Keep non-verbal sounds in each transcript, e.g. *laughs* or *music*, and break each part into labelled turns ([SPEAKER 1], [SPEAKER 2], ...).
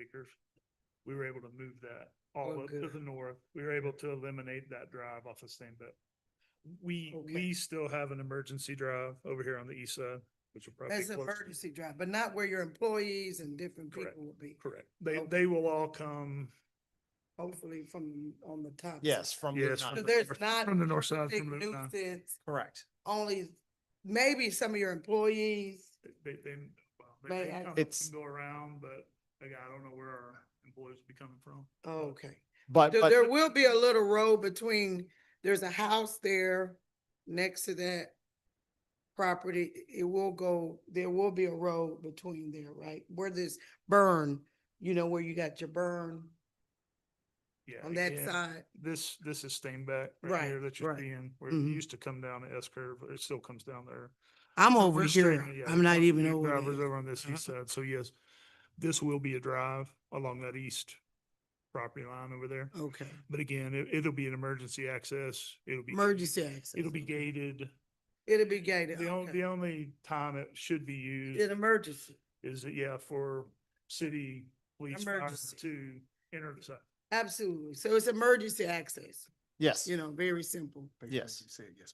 [SPEAKER 1] acres. We were able to move that all
[SPEAKER 2] Oh,
[SPEAKER 1] up to
[SPEAKER 2] good.
[SPEAKER 1] the north. We were able to eliminate that drive off of Stainbit. We,
[SPEAKER 2] Okay.
[SPEAKER 1] we still have an emergency drive over here on the east side, which will probably. be
[SPEAKER 2] That's an
[SPEAKER 1] closer.
[SPEAKER 2] emergency drive, but not where your employees and different
[SPEAKER 1] Correct.
[SPEAKER 2] people would be,
[SPEAKER 1] Correct. They,
[SPEAKER 2] Okay.
[SPEAKER 1] they will all come,
[SPEAKER 2] hopefully from, on the top.
[SPEAKER 3] Yes,
[SPEAKER 2] side.
[SPEAKER 3] from.
[SPEAKER 1] Yes,
[SPEAKER 3] Lebanon.
[SPEAKER 2] So
[SPEAKER 1] from the
[SPEAKER 2] there's
[SPEAKER 1] north-
[SPEAKER 2] not.
[SPEAKER 1] from the uh, north side,
[SPEAKER 2] big
[SPEAKER 1] from Lebanon.
[SPEAKER 2] nuisance,
[SPEAKER 3] Correct.
[SPEAKER 2] only maybe some of your employees,
[SPEAKER 1] they, they, well, they-
[SPEAKER 2] May
[SPEAKER 1] they
[SPEAKER 2] I-
[SPEAKER 1] come up
[SPEAKER 3] It's-
[SPEAKER 1] and go around, but again, I don't know where our employees will be coming from.
[SPEAKER 2] Oh, okay.
[SPEAKER 3] But,
[SPEAKER 2] There,
[SPEAKER 3] but,
[SPEAKER 2] there will be a little road between, there's a house there next to that property. It will go, there will be a road between there, right? Where this burn, you know, where you got your burn
[SPEAKER 1] Yeah.
[SPEAKER 2] on that
[SPEAKER 1] again,
[SPEAKER 2] side.
[SPEAKER 1] This, this is Stainback
[SPEAKER 2] Right,
[SPEAKER 1] right here that you're
[SPEAKER 2] right.
[SPEAKER 1] seeing, where it
[SPEAKER 2] Mhm.
[SPEAKER 1] used to come down the S curve, it still comes down there.
[SPEAKER 2] I'm
[SPEAKER 1] So
[SPEAKER 2] over
[SPEAKER 1] we're
[SPEAKER 2] here.
[SPEAKER 1] straight- yeah,
[SPEAKER 2] I'm not
[SPEAKER 1] so
[SPEAKER 2] even
[SPEAKER 1] these
[SPEAKER 2] over
[SPEAKER 1] Drivers
[SPEAKER 2] there.
[SPEAKER 1] over on this east
[SPEAKER 3] Uh-huh.
[SPEAKER 1] side, so yes, this will be a drive along that east property line over there.
[SPEAKER 2] Okay.
[SPEAKER 1] But again, it, it'll be an emergency access, it'll be,
[SPEAKER 2] Emergency access.
[SPEAKER 1] it'll be gated.
[SPEAKER 2] It'll be gated.
[SPEAKER 1] The only,
[SPEAKER 2] okay.
[SPEAKER 1] the only time it should be used
[SPEAKER 2] An emergency.
[SPEAKER 1] is, that yeah, for city police fire
[SPEAKER 2] Emergency.
[SPEAKER 1] to enter the site.
[SPEAKER 2] Absolutely. So it's emergency access,
[SPEAKER 3] yes,
[SPEAKER 2] you know, very simple.
[SPEAKER 3] yes.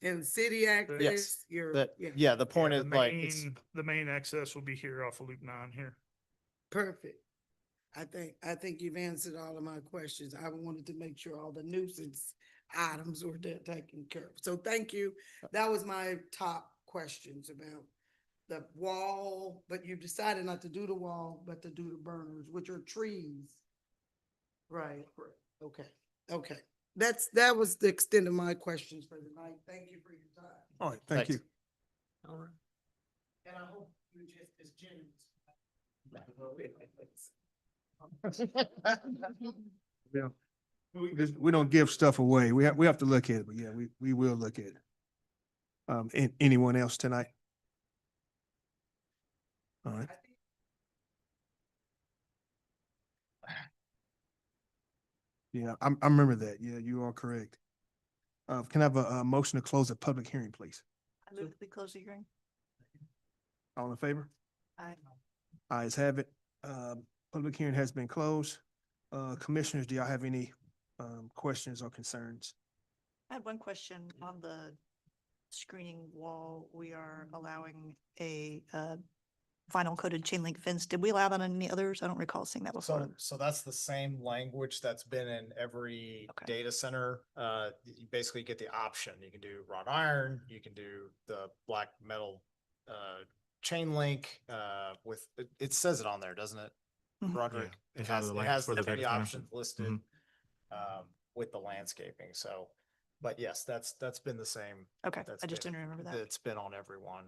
[SPEAKER 2] And city access, your,
[SPEAKER 3] That,
[SPEAKER 2] yeah,
[SPEAKER 3] yeah, the point
[SPEAKER 1] Yeah,
[SPEAKER 3] is
[SPEAKER 1] the
[SPEAKER 3] like, it's,
[SPEAKER 1] main- The main access will be here off of Loop nine here.
[SPEAKER 2] perfect. I think, I think you've answered all of my questions. I wanted to make sure all the nuisance items were de- taken care of. So thank you. That was my top questions about the wall, but you decided not to do the wall, but to do the burners, which are trees. Right, okay, okay. That's, that was the extent of my questions for tonight. Thank you for your time.
[SPEAKER 4] All right,
[SPEAKER 3] thank
[SPEAKER 4] thank
[SPEAKER 3] you.
[SPEAKER 4] you.
[SPEAKER 2] And I hope you're just as *laughs* generous.
[SPEAKER 4] This- We don't give stuff away. We have, we have to look at it, but yeah, we, we will look at it. Um, and anyone else tonight? All right, yeah, I, I remember that. Yeah, you are correct. Uh, can I have a, a motion to close the public hearing, please?
[SPEAKER 5] I move that we close the hearing.
[SPEAKER 4] All in favor?
[SPEAKER 5] Aye.
[SPEAKER 4] Ayes have it. Um, public hearing has been closed. Uh, commissioners, do y'all have any, um, questions or concerns?
[SPEAKER 5] I had one question on the screening wall. We are allowing a uh, vinyl coated chain link fence. Did we allow that on any others? I don't recall seeing that
[SPEAKER 3] So,
[SPEAKER 5] before.
[SPEAKER 3] so that's the same language that's been in every
[SPEAKER 5] Okay.
[SPEAKER 3] data center. Uh, you basically get the option. You can do wrought iron, you can do the black metal, uh, chain link, uh, with, it, it says it on there, doesn't it?
[SPEAKER 5] Mhm.
[SPEAKER 2] Mm-hmm.
[SPEAKER 3] Roderick, it
[SPEAKER 6] Yeah, it's on
[SPEAKER 3] has,
[SPEAKER 6] the
[SPEAKER 3] it
[SPEAKER 6] link
[SPEAKER 3] has
[SPEAKER 6] for
[SPEAKER 3] the
[SPEAKER 6] the data
[SPEAKER 3] three
[SPEAKER 6] center.
[SPEAKER 3] options listed, um, with the landscaping. So, but yes, that's, that's been the same.
[SPEAKER 5] Okay,
[SPEAKER 3] That's
[SPEAKER 5] I just
[SPEAKER 3] been-
[SPEAKER 5] didn't remember that.
[SPEAKER 3] It's been on everyone.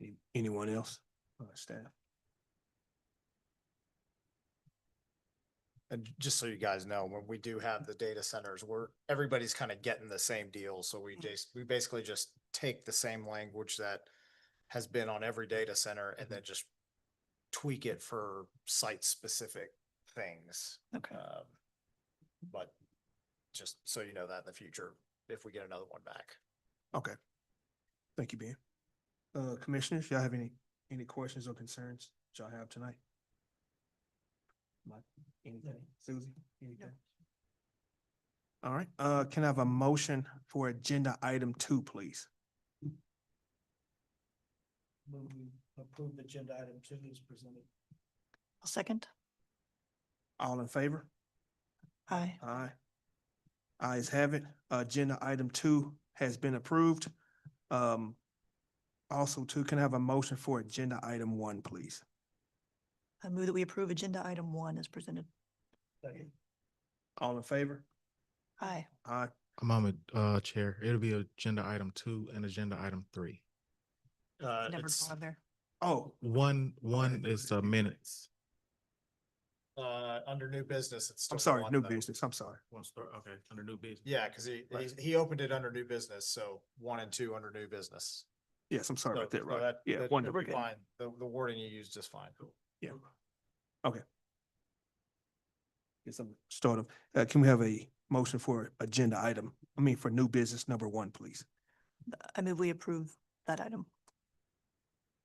[SPEAKER 4] Any- Anyone else? Uh, staff?
[SPEAKER 3] And j- just so you guys know, when we do have the data centers, we're, everybody's kind of getting the same deal. So we
[SPEAKER 5] Mhm.
[SPEAKER 3] just, we basically just take the same language that has been on every data center
[SPEAKER 5] Mm-hmm.
[SPEAKER 3] and then just tweak it for site-specific things.
[SPEAKER 5] Okay,
[SPEAKER 3] Um, But just so you know that in the future, if we get another one back.
[SPEAKER 4] Okay. Thank you, Ben. Uh, commissioners, y'all have any, any questions or concerns that y'all have tonight? Mike, anything? Susie, anything? All right, uh, can I have a motion for agenda item two, please?
[SPEAKER 2] Approve agenda item two is presented.
[SPEAKER 5] I'll second.
[SPEAKER 4] All in favor?
[SPEAKER 5] Aye.
[SPEAKER 4] Aye. Ayes have it. Agenda item two has been approved. Um, also two, can I have a motion for agenda item one, please?
[SPEAKER 5] I move that we approve agenda item one as presented.
[SPEAKER 4] All in favor?
[SPEAKER 5] Aye.
[SPEAKER 4] Aye.
[SPEAKER 6] I'm on the uh, chair. It'll be agenda item two and agenda item three.
[SPEAKER 3] Uh,
[SPEAKER 5] Never
[SPEAKER 3] it's,
[SPEAKER 5] gone there.
[SPEAKER 4] Oh,
[SPEAKER 6] One, one is the minutes.
[SPEAKER 3] uh, under new business, it's.
[SPEAKER 4] I'm
[SPEAKER 3] still
[SPEAKER 4] sorry,
[SPEAKER 3] one,
[SPEAKER 4] new
[SPEAKER 3] though.
[SPEAKER 4] business, I'm sorry.
[SPEAKER 6] One start, okay, under new business.
[SPEAKER 3] Yeah, because he,
[SPEAKER 6] Right.
[SPEAKER 3] he, he opened it under new business, so one and two under new business.
[SPEAKER 4] Yes, I'm sorry
[SPEAKER 3] So-
[SPEAKER 4] about that,
[SPEAKER 3] so
[SPEAKER 4] right?
[SPEAKER 3] that-
[SPEAKER 4] Yeah,
[SPEAKER 3] that
[SPEAKER 4] one,
[SPEAKER 3] should be
[SPEAKER 4] okay,
[SPEAKER 3] Fine, the, the wording you used is fine.
[SPEAKER 4] yeah. Okay. Get some start of, uh, can we have a motion for agenda item, I mean, for new business number one, please?
[SPEAKER 5] I move we approve that item.